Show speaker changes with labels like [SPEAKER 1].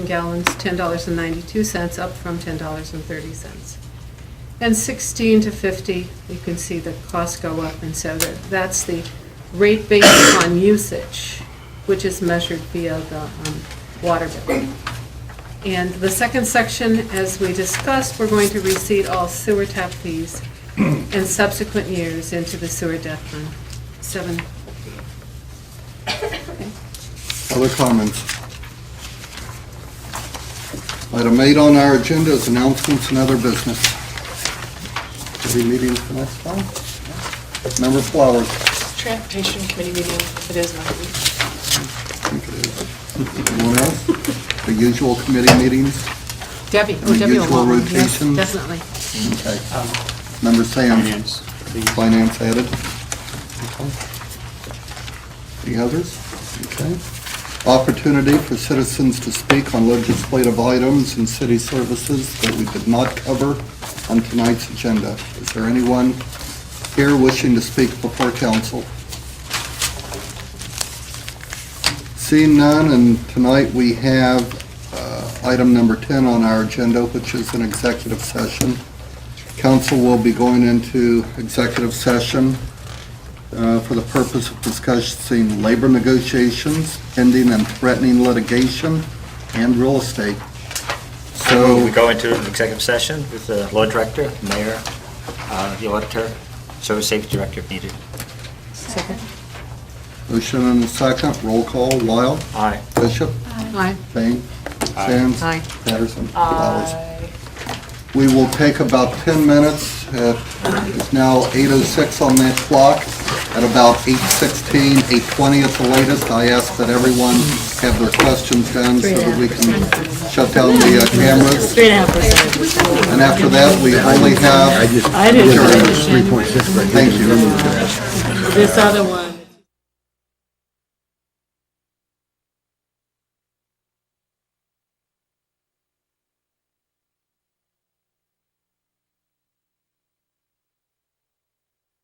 [SPEAKER 1] gallons, $10.92, up from $10.30. And 16 to 50, you can see the costs go up, and so that, that's the rate based upon usage, which is measured via the um, water bill. And the second section, as we discussed, we're going to receipt all sewer tap fees in subsequent years into the sewer debt fund. Seven,
[SPEAKER 2] Other comments? Item eight on our agenda is announcements and other business. Any meetings for next time? Member Flowers.
[SPEAKER 3] Transportation Committee meeting, it is my week.
[SPEAKER 2] Anyone else? The usual committee meetings?
[SPEAKER 1] Debbie, oh,
[SPEAKER 2] The
[SPEAKER 1] Debbie will
[SPEAKER 2] usual
[SPEAKER 1] want one, yes,
[SPEAKER 2] rotation?
[SPEAKER 1] definitely.
[SPEAKER 2] Okay. Member Sands. Finance added. The others? Okay. Opportunity for citizens to speak on legislative items and city services that we did not cover on tonight's agenda. Is there anyone here wishing to speak before council? Seeing none, and tonight we have uh, item number 10 on our agenda, which is an executive session. Council will be going into executive session uh, for the purpose of discussing labor negotiations, pending and threatening litigation, and real estate.
[SPEAKER 4] We
[SPEAKER 2] So,
[SPEAKER 4] go into an executive session with the law director, mayor, uh, the auditor, service safety director if needed.
[SPEAKER 2] motion and a second, roll call, Wild,
[SPEAKER 4] Aye.
[SPEAKER 2] Bishop,
[SPEAKER 1] Aye.
[SPEAKER 2] Payne, Sands,
[SPEAKER 1] Aye. Uh,
[SPEAKER 2] Patterson, Flowers. We will take about 10 minutes. Uh, It's now 8:06 on that clock. At about 8:16, 8:20 at the latest, I ask that everyone have their questions done so that we can shut down the uh, cameras.
[SPEAKER 5] Three and a half percent.
[SPEAKER 2] And after that, we only have...
[SPEAKER 5] I didn't,
[SPEAKER 2] Thank you.
[SPEAKER 5] this other one.